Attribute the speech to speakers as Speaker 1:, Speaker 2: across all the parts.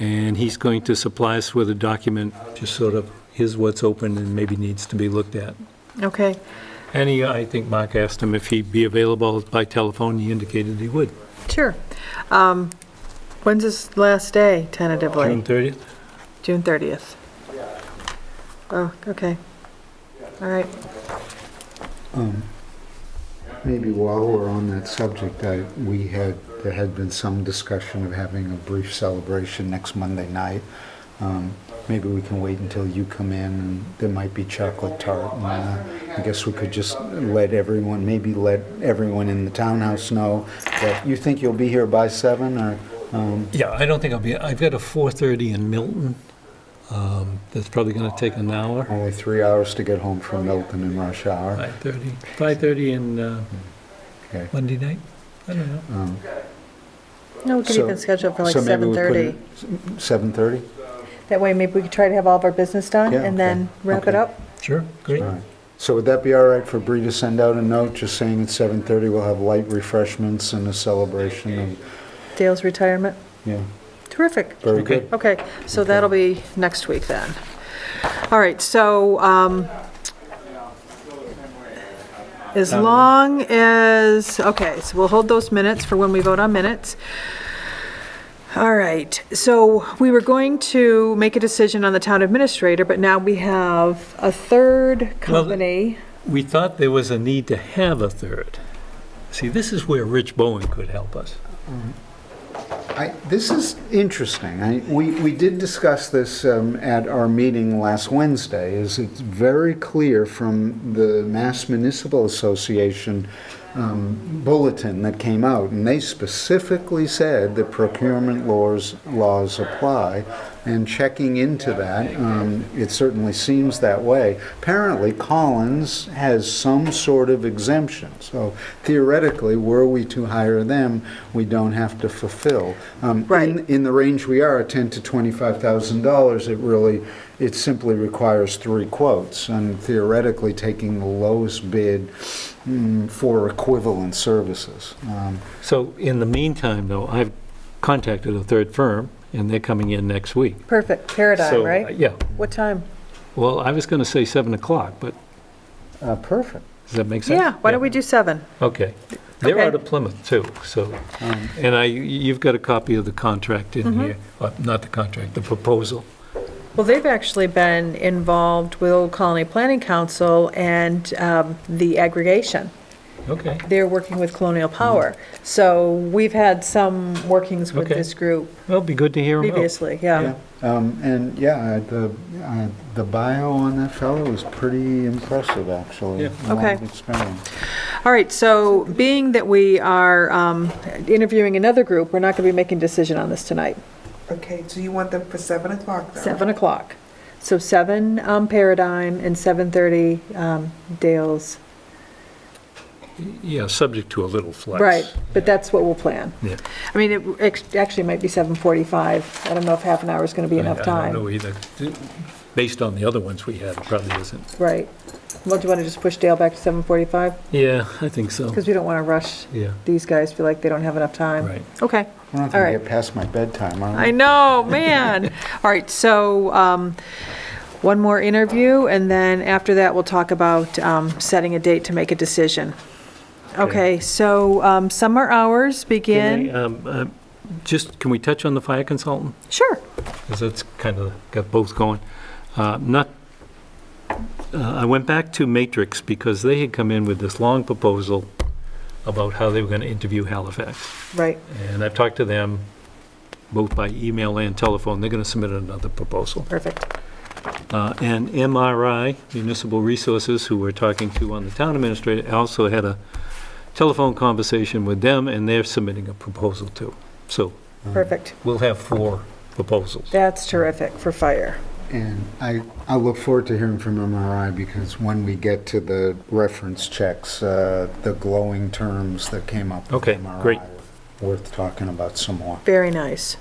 Speaker 1: And he's going to supply us with a document, just sort of, here's what's open and maybe needs to be looked at.
Speaker 2: Okay,
Speaker 1: And he, I think Mark asked him if he'd be available by telephone, he indicated he would.
Speaker 2: sure. Um, When's his last day
Speaker 1: June
Speaker 2: tentatively?
Speaker 1: 30th?
Speaker 2: June 30th? Oh, okay. All right.
Speaker 3: Maybe while we're on that subject, I, we had, there had been some discussion of having a brief celebration next Monday night. Um, Maybe we can wait until you come in, and there might be chocolate tart. and, uh, I guess we could just let everyone, maybe let everyone in the townhouse know that you think you'll be here by seven, or, um,
Speaker 1: Yeah, I don't think I'll be, I've got a 4:30 in Milton. um, That's probably going to take an hour.
Speaker 3: only three hours to get home from Milton in rush hour.
Speaker 1: 5:30, 5:30 in uh,
Speaker 3: Okay.
Speaker 1: Monday night? I don't know.
Speaker 3: Um,
Speaker 2: No, we could
Speaker 3: So-
Speaker 2: even schedule it for like
Speaker 3: so maybe we put
Speaker 2: 7:30.
Speaker 3: it- 7:30?
Speaker 2: That way, maybe we could try to have all of our business done
Speaker 3: Yeah,
Speaker 2: and then
Speaker 3: okay.
Speaker 2: wrap it
Speaker 3: Okay.
Speaker 2: up.
Speaker 1: Sure, great.
Speaker 3: All right. So would that be all right for Bree to send out a note just saying at 7:30 we'll have light refreshments and a celebration of,
Speaker 2: Dale's retirement.
Speaker 3: yeah,
Speaker 2: Terrific.
Speaker 3: very
Speaker 1: Okay.
Speaker 3: good.
Speaker 2: Okay, so that'll be next week then. All right, so um, as long as, okay, so we'll hold those minutes for when we vote on minutes. All right, so we were going to make a decision on the town administrator, but now we have a third company.
Speaker 1: We thought there was a need to have a third. See, this is where Rich Bowen could help us.
Speaker 3: I- This is interesting. I- We we did discuss this um, at our meeting last Wednesday, is it's very clear from the Mass Municipal Association um, bulletin that came out, and they specifically said that procurement laws, laws apply, and checking into that, um, it certainly seems that way. Apparently, Collins has some sort of exemption, so theoretically, were we to hire them, we don't have to fulfill. Um, in-
Speaker 2: Right.
Speaker 3: In the range we are, ten to twenty-five thousand dollars, it really, it simply requires three quotes, and theoretically, taking the lowest bid mm, for equivalent services. Um,
Speaker 1: So in the meantime, though, I've contacted a third firm, and they're coming in next week.
Speaker 2: Perfect,
Speaker 1: So, uh,
Speaker 2: Paradigm, right?
Speaker 1: Yeah,
Speaker 2: What time?
Speaker 1: well, I was going to say 7 o'clock, but
Speaker 3: uh, Perfect.
Speaker 1: does that make sense?
Speaker 2: Yeah, why don't we do seven?
Speaker 1: Okay. They're
Speaker 2: Okay.
Speaker 1: out of Plymouth, too, so, and I, you've got a copy of the contract
Speaker 2: Mm-hmm.
Speaker 1: in here, Uh, not the contract, the proposal.
Speaker 2: Well, they've actually been involved with Old Colony Planning Council and um, the aggregation.
Speaker 1: Okay.
Speaker 2: They're working with Colonial Power. So we've had some workings with
Speaker 1: Mm. Okay.
Speaker 2: this group
Speaker 1: Well, it'd be good to hear them out.
Speaker 2: previously, yeah.
Speaker 3: Yeah. Um, And yeah, I- the I- the bio on that fellow was pretty impressive, actually.
Speaker 1: Yeah.
Speaker 3: Long
Speaker 2: Okay.
Speaker 3: experience.
Speaker 2: All right, so being that we are um, interviewing another group, we're not going to be making a decision on this tonight.
Speaker 4: Okay, so you want them for seven o'clock though?
Speaker 2: 7 o'clock. So 7 um, Paradigm and 7:30 um, Dale's.
Speaker 1: Yeah, subject to a little flex.
Speaker 2: Right, but that's what we'll plan.
Speaker 1: Yeah.
Speaker 2: I mean, it ex- actually might be 7:45. I don't know if half an hour is going to be
Speaker 1: I-
Speaker 2: enough
Speaker 1: I don't
Speaker 2: time.
Speaker 1: know either. Based on the other ones we had, it probably isn't.
Speaker 2: Right. Well, do you want to just push Dale back to 7:45?
Speaker 1: Yeah, I think so.
Speaker 2: Because we don't want to rush
Speaker 1: Yeah,
Speaker 2: these guys, feel like they don't have enough time.
Speaker 1: right.
Speaker 2: Okay.
Speaker 3: We're not
Speaker 2: All
Speaker 3: going
Speaker 2: right.
Speaker 3: to get past my bedtime, are we?
Speaker 2: I know, man. All right, so um, one more interview, and then after that, we'll talk about um, setting a date to make a decision. Okay, so um, summer hours
Speaker 1: Can I,
Speaker 2: begin.
Speaker 1: um, um, Just, can we touch on the fire consultant?
Speaker 2: Sure.
Speaker 1: Because that's kind of got both going. Uh, Not, uh, I went back to Matrix because they had come in with this long proposal about how they were going to interview Halifax.
Speaker 2: Right.
Speaker 1: And I've talked to them both by email and telephone. They're going to submit another proposal.
Speaker 2: Perfect.
Speaker 1: Uh, And MRI, Municipal Resources, who we're talking to on the town administrator, also had a telephone conversation with them, and they're submitting a proposal too. So
Speaker 3: Um,
Speaker 2: Perfect.
Speaker 1: we'll have four proposals.
Speaker 2: That's terrific for fire.
Speaker 3: And I, I look forward to hearing from MRI because when we get to the reference checks, uh, the glowing terms that came up with
Speaker 1: Okay,
Speaker 3: MRI
Speaker 1: great.
Speaker 3: are worth talking about some more.
Speaker 2: Very nice.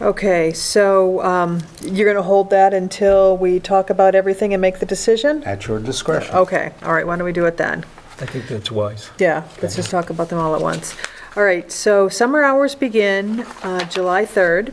Speaker 2: Okay, so um, you're going to hold that until we talk about everything and make the decision?
Speaker 3: At your discretion.
Speaker 2: Okay, all right, why don't we do it then?
Speaker 1: I think that's wise.
Speaker 2: Yeah, let's just talk about them all at once. All right, so summer hours begin uh, July 3rd.